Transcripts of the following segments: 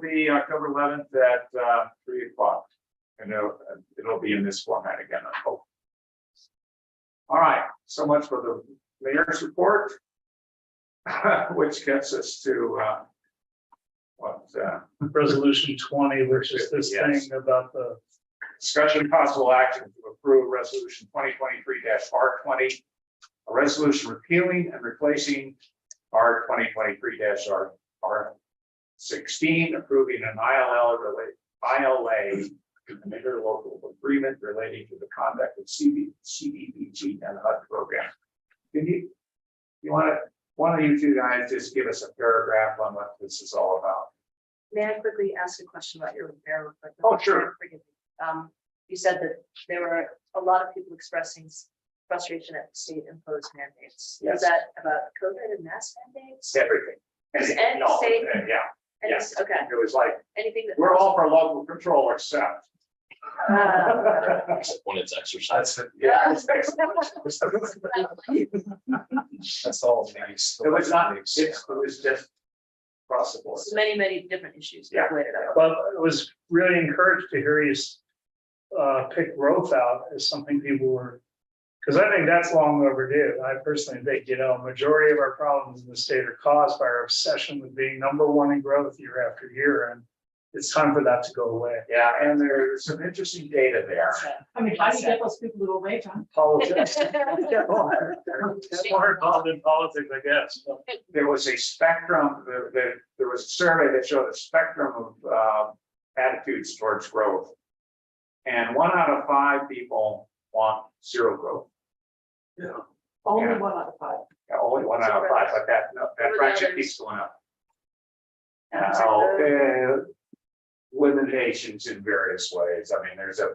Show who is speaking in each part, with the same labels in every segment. Speaker 1: be October eleventh at uh three o'clock. And it'll, it'll be in this format again, I hope. All right, so much for the mayor's report. Which gets us to uh. What uh
Speaker 2: resolution twenty, which is this
Speaker 1: Yes.
Speaker 2: thing about the,
Speaker 1: Discussion and possible action to approve resolution twenty twenty-three R twenty. A resolution repealing and replacing R twenty twenty-three R, R sixteen, approving an ILL related, ILA. An interlocal agreement relating to the conduct of CB, CDBG and HUD program. Can you, you wanna, one of you two guys just give us a paragraph on what this is all about?
Speaker 3: May I quickly ask a question about your repair? real quick?
Speaker 1: Oh, sure.
Speaker 3: Forgive me. Um, you said that there were a lot of people expressing frustration at state imposed mandates.
Speaker 1: Yes.
Speaker 3: Is that about COVID and mask mandates?
Speaker 1: Everything.
Speaker 3: Is
Speaker 1: And-
Speaker 3: Ed
Speaker 1: no,
Speaker 3: saying-
Speaker 1: and Yeah,
Speaker 3: And it's- Okay,
Speaker 1: it was like,
Speaker 3: anything that.
Speaker 1: We're all for local control except.
Speaker 3: Ah.
Speaker 4: except when it's
Speaker 1: That's,
Speaker 4: exercised.
Speaker 1: it, yeah.
Speaker 3: Yeah.
Speaker 4: That's all nice.
Speaker 1: It was not, it's, it was just across the board.
Speaker 3: It's Many, many different issues.
Speaker 1: Yeah.
Speaker 3: related.
Speaker 2: well, I was really encouraged to hear you s- uh, pick growth out as something people were, because I think that's long overdue. I personally think, you know, majority of our problems in the state are caused by our obsession with being number one in growth year after year, and it's time for that to go away.
Speaker 1: Yeah, and there's some interesting data there.
Speaker 5: I mean, how do you get those people to away, John?
Speaker 2: Politics.
Speaker 3: Shame.
Speaker 2: More involved in politics, I guess.
Speaker 1: There was a spectrum, there, there, there was a survey that showed a spectrum of, uh, attitudes towards growth. And one out of five people want zero growth.
Speaker 5: Only one out of five.
Speaker 1: Yeah, Only one out of five, but that, that
Speaker 3: What about
Speaker 1: fraction
Speaker 3: others?
Speaker 1: keeps going up.
Speaker 3: Um,
Speaker 1: Now, uh, limitations in various ways. I mean, there's a,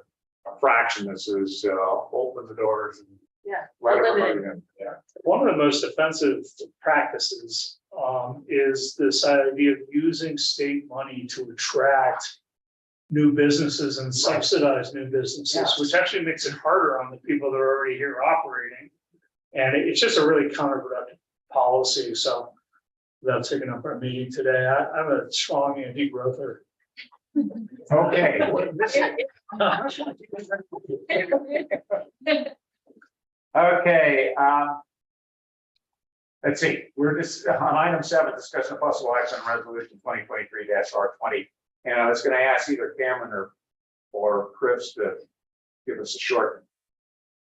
Speaker 1: a fraction that says, uh, open the doors. and
Speaker 3: Yeah.
Speaker 1: let
Speaker 3: Limited.
Speaker 1: everybody in. Yeah,
Speaker 2: One of the most offensive practices um, is this idea of using state money to attract new businesses and subsidize new businesses,
Speaker 1: Yes.
Speaker 2: which actually makes it harder on the people that are already here operating. And it- it's just a really counterproductive policy, so without taking up our meeting today, I, I'm a strong anti-growther.
Speaker 1: okay. well, this is- Okay, um. Let's see, we're just on item seven, discussion of possible action on resolution twenty twenty-three R twenty. And I was gonna ask either Cameron or, or Chris to give us a short.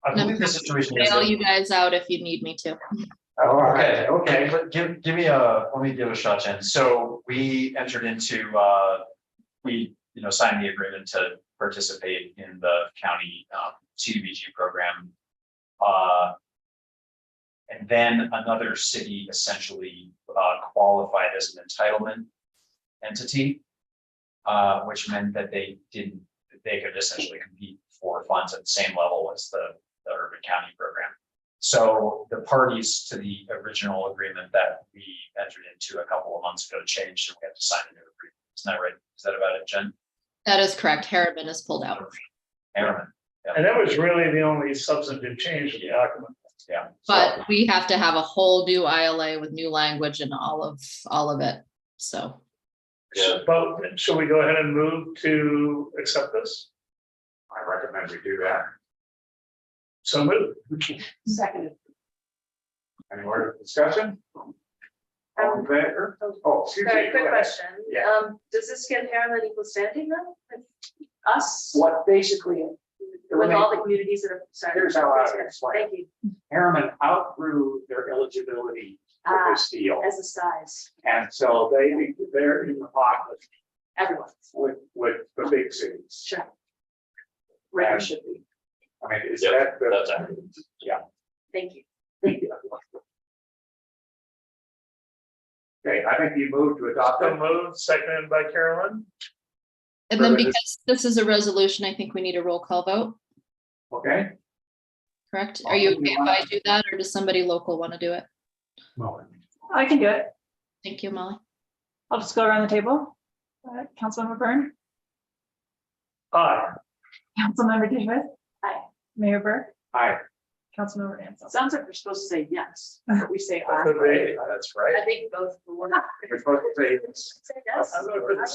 Speaker 2: I
Speaker 6: believe
Speaker 2: the situation
Speaker 6: bail you guys out if you need me to.
Speaker 1: All
Speaker 7: Okay, Oh, okay,
Speaker 1: Okay,
Speaker 7: but give, give me a, let me give a shot, Jen. So we entered into, uh, we, you know, signed the agreement to participate in the county, um, CDBG program. Uh, and then another city essentially, uh, qualified as an entitlement entity. Uh, which meant that they didn't, that they could essentially compete for funds at the same level as the, the urban county program. So the parties to the original agreement that we entered into a couple of months ago changed and we have to sign a new agreement. Isn't that right? Is that about it, Jen?
Speaker 6: That is correct. Harriman is pulled out.
Speaker 7: Aaron?
Speaker 2: And that was really the only substantive change in the document.
Speaker 7: Yeah. So-
Speaker 6: But we have to have a whole new ILA with new language and all of, all of it. So
Speaker 4: Yeah.
Speaker 2: But should we go ahead and move to accept this?
Speaker 1: I recommend we do that.
Speaker 2: So move.
Speaker 5: Seconded.
Speaker 1: Any more discussion? All
Speaker 3: Um,
Speaker 1: in favor? Oh, excuse me.
Speaker 3: Sorry,
Speaker 1: go
Speaker 3: quick
Speaker 1: ahead.
Speaker 3: question.
Speaker 1: Yeah.
Speaker 3: Um, does this give Harriman equal standing though? Like, Us?
Speaker 1: What basically,
Speaker 3: With all the communities that are. sorry.
Speaker 1: Here's how I would explain it.
Speaker 3: Thank you, Ah.
Speaker 1: Harriman outgrew their eligibility for this deal.
Speaker 3: Uh, as a size,
Speaker 1: And so they, they're in the pocket
Speaker 3: everyone,
Speaker 1: with, with the big cities.
Speaker 3: sure. Right, should be,
Speaker 1: I mean, is
Speaker 4: Yep,
Speaker 1: that the?
Speaker 4: That's accurate.
Speaker 3: thank you.
Speaker 1: Okay, I think you moved to adopt
Speaker 2: So
Speaker 1: it.
Speaker 2: moved, seconded by Carolyn.
Speaker 6: and then
Speaker 1: Perfect.
Speaker 6: because this is a resolution, I think we need a roll call vote,
Speaker 1: Okay?
Speaker 6: correct? Are you
Speaker 1: Oh, we
Speaker 6: okay if I do that or does somebody local want to do it?
Speaker 5: I can do it.
Speaker 6: Thank you, Molly.
Speaker 5: I'll just go around the table. Uh, Councilmember Byrne,
Speaker 2: Aye.
Speaker 5: Councilmember Davis.
Speaker 3: Aye.
Speaker 5: Mayor Burke,
Speaker 1: Aye.
Speaker 5: Councilmember Ansel.
Speaker 3: Sounds like we're supposed to say yes, but we say
Speaker 2: That
Speaker 3: aye.
Speaker 2: could be.
Speaker 7: That's right.
Speaker 3: I think both.
Speaker 1: We're supposed to say
Speaker 3: Say yes.
Speaker 2: I don't know if it's-